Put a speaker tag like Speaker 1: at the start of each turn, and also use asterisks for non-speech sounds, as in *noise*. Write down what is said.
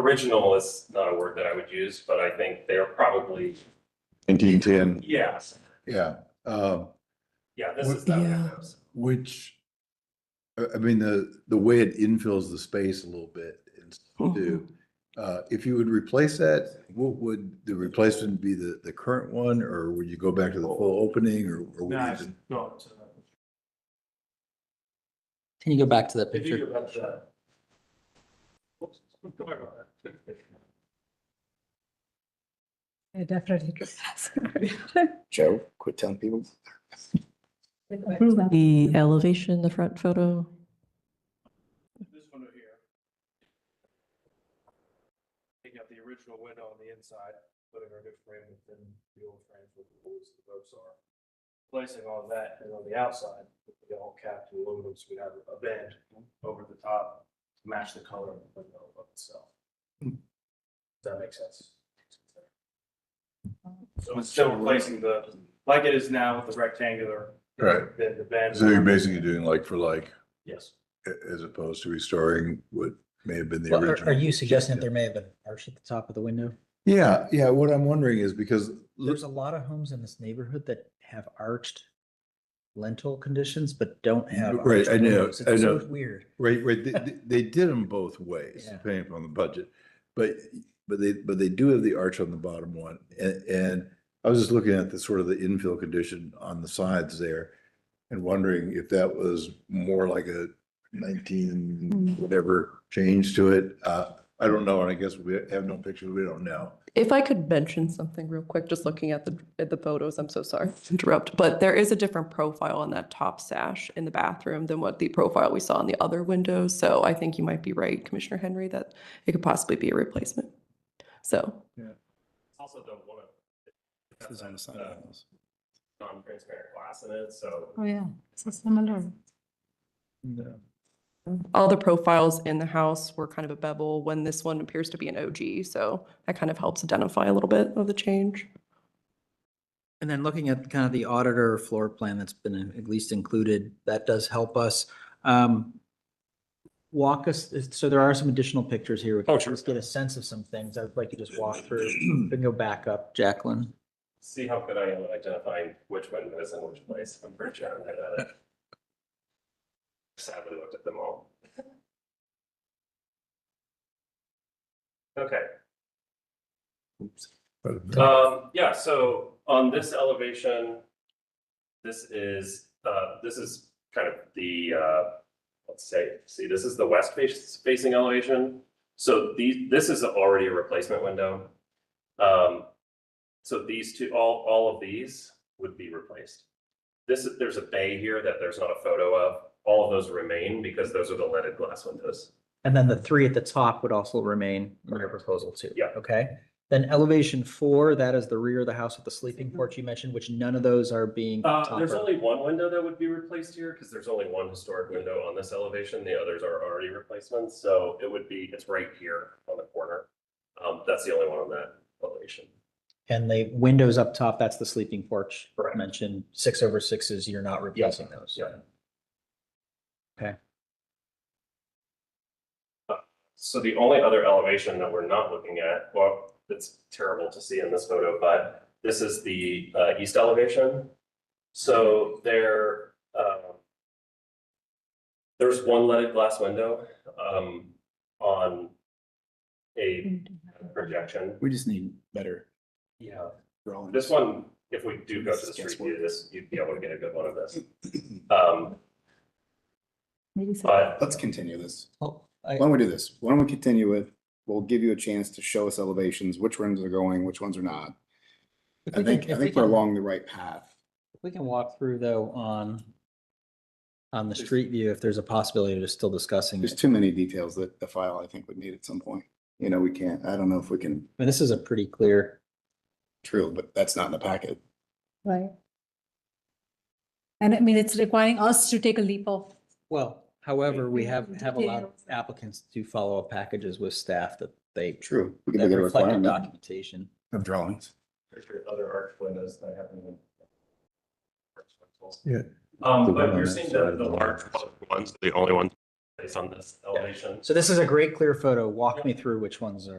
Speaker 1: original is not a word that I would use, but I think they're probably,
Speaker 2: nineteen ten.
Speaker 1: yes,
Speaker 3: Yeah, um,
Speaker 1: yeah, this is that.
Speaker 4: Yeah.
Speaker 1: house.
Speaker 3: which, I, I mean, the, the way it infills the space a little bit is do. Uh, if you would replace that, what would the replacement be the, the current one, or would you go back to the full opening or? or would
Speaker 5: No,
Speaker 3: you
Speaker 5: it's
Speaker 3: do-
Speaker 5: not. uh,
Speaker 6: Can you go back to that
Speaker 5: If you
Speaker 6: picture?
Speaker 5: go back to that. Oops, sorry about that.
Speaker 4: I definitely. *laughs*
Speaker 7: Joe, quit telling people.
Speaker 8: The elevation, the front photo.
Speaker 5: This window here. Taking out the original window on the inside, putting our new frame within the old frame with the holes the ropes are. Placing all that and on the outside, we all capped with aluminum, so we have a band over the top to match the color of the window above itself. Does that make sense? So it's still replacing the, like it is now with the rectangular,
Speaker 3: Right,
Speaker 5: then the band.
Speaker 3: so you're basically doing like for like,
Speaker 5: Yes.
Speaker 3: a- as opposed to restoring what may have been the
Speaker 6: Well, Are
Speaker 3: original.
Speaker 6: are you suggesting that there may have been an arch at the top of the window?
Speaker 3: Yeah, yeah, what I'm wondering is because,
Speaker 6: There's a lot of homes in this neighborhood that have arched lintel conditions, but don't have.
Speaker 3: Right,
Speaker 6: arched
Speaker 3: I know,
Speaker 6: windows. It's
Speaker 3: I
Speaker 6: so
Speaker 3: know.
Speaker 6: Weird.
Speaker 3: right, right, they, they- they did them both ways,
Speaker 6: Yeah.
Speaker 3: depending upon the budget. But, but they, but they do have the arch on the bottom one, and, and I was just looking at the sort of the infill condition on the sides there. And wondering if that was more like a nineteen, whatever change to it, uh, I don't know, and I guess we have no picture, we don't know.
Speaker 8: If I could mention something real quick, just looking at the, at the photos, I'm so sorry to interrupt, but there is a different profile on that top sash in the bathroom than what the profile we saw in the other windows. So I think you might be right, Commissioner Henry, that it could possibly be a replacement. So
Speaker 1: It's Also the one of.
Speaker 7: This is on the side of the house.
Speaker 1: Non-transparent glass in it, so.
Speaker 4: Oh, yeah, so similar.
Speaker 8: all the profiles in the house were kind of a bevel when this one appears to be an OG. So that kind of helps identify a little bit of the change.
Speaker 6: And then looking at kind of the auditor floor plan that's been at least included, that does help us. Um, Walk us, so there are some additional pictures here. We can
Speaker 1: Oh, sure.
Speaker 6: Just get a sense of some things. I'd like to just walk through and go back up, Jacqueline.
Speaker 1: See how good I am at identifying which window is in which place. I'm pretty sure I'm good at it. Sadly looked at them all. Okay, um, yeah, so on this elevation, this is, uh, this is kind of the, uh, let's say, see, this is the west face- facing elevation. So these, this is already a replacement window. Um, so these two, all, all of these would be replaced. This is, there's a bay here that there's not a photo of. All of those remain because those are the leaded glass windows.
Speaker 6: And then the three at the top would also remain in your proposal too.
Speaker 1: Yeah.
Speaker 6: Okay. Then elevation four, that is the rear of the house with the sleeping
Speaker 4: Mm-hmm.
Speaker 6: porch you mentioned, which none of those are being.
Speaker 1: Uh, there's
Speaker 6: topper.
Speaker 1: only one window that would be replaced here because there's only one historic window on this elevation. The others are already replacements, so it would be, it's right here on the corner. Um, that's the only one on that elevation.
Speaker 6: And the windows up top, that's the sleeping porch
Speaker 1: Correct.
Speaker 6: mentioned, six over sixes, you're not replacing those.
Speaker 1: yeah.
Speaker 6: Okay.
Speaker 1: So the only other elevation that we're not looking at, well, it's terrible to see in this photo, but this is the uh, east elevation. So there, um, there's one leaded glass window um, on a projection.
Speaker 7: We just need better
Speaker 1: Yeah.
Speaker 7: drawings.
Speaker 1: This one, if we do go to the street view, this, you'd be able to get a good one of this. Um,
Speaker 4: Maybe so.
Speaker 1: But
Speaker 7: Let's continue this.
Speaker 6: Well, I,
Speaker 7: Why don't we do this? Why don't we continue with, we'll give you a chance to show us elevations, which ones are going, which ones are not.
Speaker 6: if
Speaker 7: I
Speaker 6: we
Speaker 7: think,
Speaker 6: can-
Speaker 7: I
Speaker 6: if we
Speaker 7: think we're
Speaker 6: can-
Speaker 7: along the right path.
Speaker 6: if We can walk through though on, on the street view, if there's a possibility of still discussing
Speaker 7: There's
Speaker 6: it.
Speaker 7: too many details that the file, I think, would need at some point. You know, we can't, I don't know if we can,
Speaker 6: But this is a pretty clear,
Speaker 7: true, but that's not in the packet.
Speaker 4: Right. And I mean, it's requiring us to take a leap of,
Speaker 6: well, however, we
Speaker 4: we
Speaker 6: have,
Speaker 4: have
Speaker 6: have allowed
Speaker 4: details.
Speaker 6: applicants to follow up packages with staff that they,
Speaker 7: True. We can
Speaker 6: that
Speaker 7: make it a
Speaker 6: reflect
Speaker 7: requirement
Speaker 6: documentation.
Speaker 7: of drawings.
Speaker 1: there's your other arch windows that haven't even.
Speaker 3: Yeah.
Speaker 1: Um,
Speaker 3: The
Speaker 1: but
Speaker 3: one on
Speaker 1: you're
Speaker 3: that
Speaker 1: seeing
Speaker 3: side
Speaker 1: the,
Speaker 3: of
Speaker 1: the
Speaker 3: the
Speaker 1: large
Speaker 3: wall.
Speaker 1: colored ones, the only ones based on this elevation.
Speaker 6: So this is a great clear photo. Walk me through which ones are.